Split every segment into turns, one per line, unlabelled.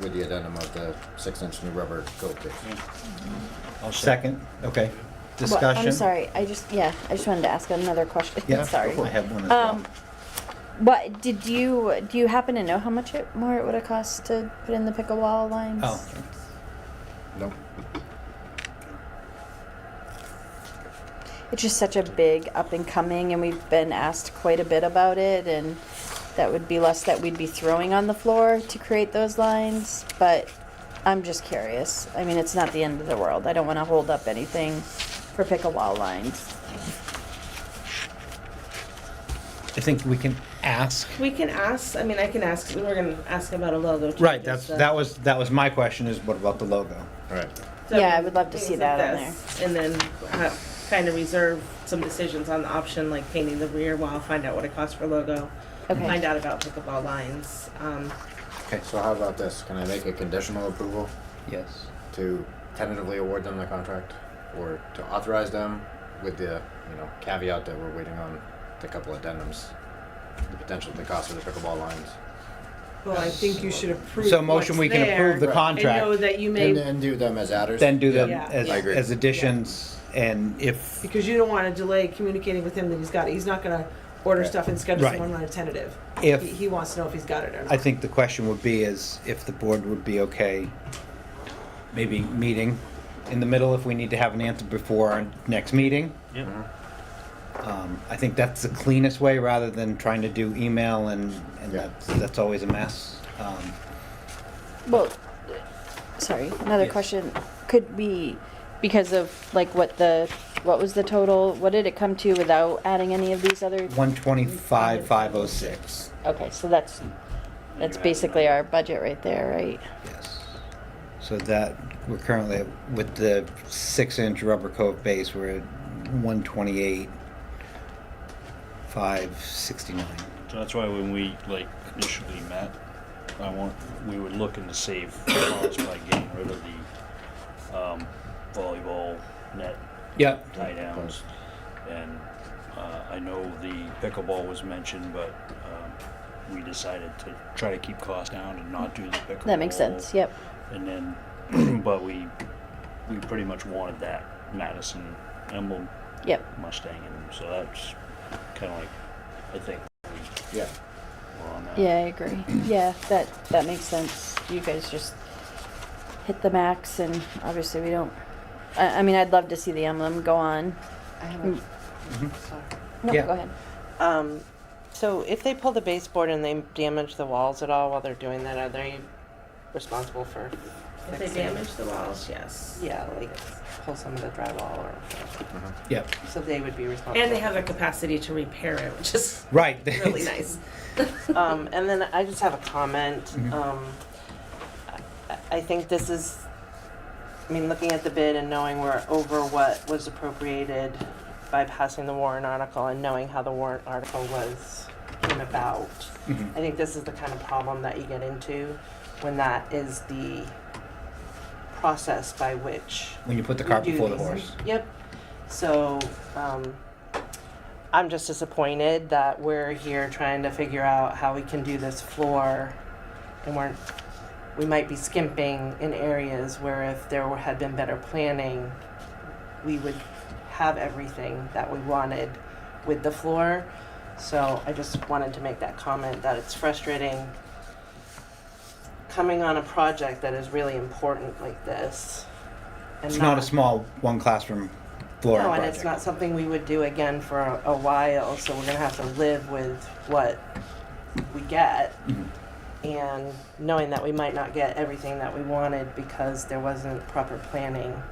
with the addendum of the six-inch new rubber coat pitch.
I'll second, okay.
Well,
Discussion?
I'm sorry, I just, yeah, I just wanted to ask another question,
Yeah,
sorry.
I have one as well.
Um, what, did you, do you happen to know how much it, more it would've cost to put in the pickleball lines?
Oh,
Nope.
It's just such a big up and coming, and we've been asked quite a bit about it, and that would be less that we'd be throwing on the floor to create those lines, but I'm just curious. I mean, it's not the end of the world. I don't wanna hold up anything for pickleball lines.
I think we can ask.
We can ask, I mean, I can ask, we were gonna ask about a logo. too,
Right, that's,
just, uh,
that was, that was my question is what about the logo?
All right.
so
Yeah, I would love to
things
see
like
that on
this, And then uh, kind of reserve some decisions on the option, like painting the rear wall, find out what it costs for logo.
Okay.
Find out about pickleball lines. Um,
Okay,
So how about this? Can I make a conditional approval
yes.
to tentatively award them the contract? Or to authorize them with the, you know, caveat that we're waiting on the couple addendums, the potential, the cost of the pickleball lines?
well, I think you should approve.
So motion, we can approve the
Right.
And know
contract,
that you
And,
may,
and do them as adders?
then do them
Yeah.
as,
I
agree.
as additions, and if,
because you don't wanna delay communicating with him that he's got it. He's not gonna order
Right.
stuff and schedule
Right.
someone on a tentative.
If-
He, he wants to know if he's got it or
I
not.
think the question would be is if the board would be okay, maybe meeting in the middle if we need to have an answer before our next meeting.
Mhm.
Um, I think that's the cleanest way, rather than trying to do email and, and
Yeah.
that's, that's always a mess. Um,
Well, sorry, another
Yes.
question. Could we, because of like what the, what was the total, what did it come to without adding any of these other?
One twenty-five, five oh six,
Okay, so that's, that's basically our budget right there, right?
yes. So that, we're currently, at- with the six-inch rubber coat base, we're at one twenty-eight, five sixty-nine.
So that's why when we like initially met, I want, we were looking to save costs by getting rid of the um, volleyball net
Yep,
tie downs. And uh, I know the pickleball was mentioned, but um, we decided to try to keep costs down and not do the pickleball.
That makes sense, yep.
And then, but we, we pretty much wanted that Madison emblem
Yep,
Mustang emblem, so that's kind of like, I think
Yeah.
we're on that.
yeah, I agree. Yeah, that, that makes sense. You guys just hit the max and obviously we don't, I, I mean, I'd love to see the emblem go on.
I have
Mm.
a, sorry.
No, go
Mm-hmm. Yeah.
ahead.
Um, so if they pull the baseboard and they damage the walls at all while they're doing that, are they responsible for?
If they
fixing-
damage the walls, yes.
Yeah, like pull some of the drywall or,
yep,
so they would be responsible.
And they have the capacity to repair it, which is
right.
really nice.
Um, and then I just have a comment. Um, I, I think this is, I mean, looking at the bid and knowing we're over what was appropriated by passing the warrant article and knowing how the warrant article was came about.
Mm-hmm.
I think this is the kind of problem that you get into when that is the process by which
When you put the
we
cart
do
before the
these.
horse.
Yep. So, um, I'm just disappointed that we're here trying to figure out how we can do this floor and we're, we might be skimping in areas where if there were- had been better planning, we would have everything that we wanted with the floor. So I just wanted to make that comment that it's frustrating coming on a project that is really important like this. and
It's not a small one classroom flooring
no,
project.
and it's not something we would do again for a, a while, so we're gonna have to live with what we get. And knowing that we might not get everything that we wanted because there wasn't proper planning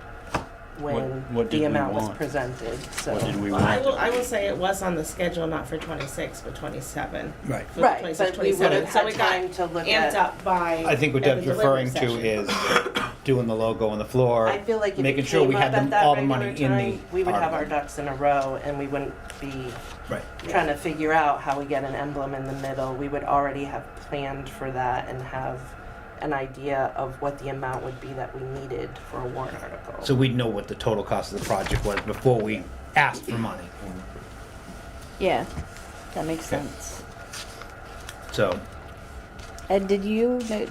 when
what did
the
we
amount was
want?
presented, so.
What did we
Well, I
want?
will, I will say it was on the schedule, not for twenty-six, but twenty-seven.
Right.
For the
Right,
26,
but we would
27.
have
So
had
it got
time to look
Amped
at,
up by.
I think what
at the
Deb's
delivery
referring to
session.
is doing the logo on the floor.
I feel like if
making
it
sure we
came up
had them-
at that
all the money
regular
in the
time, we would have our
article.
ducks in a row and we wouldn't be
Right.
trying to figure out how we get an emblem in the middle, we would already have planned for that and have an idea of what the amount would be that we needed for a warrant article.
So we'd know what the total cost of the project was before we asked for money.
Yeah, that makes
Okay.
sense.
So
Ed, did you,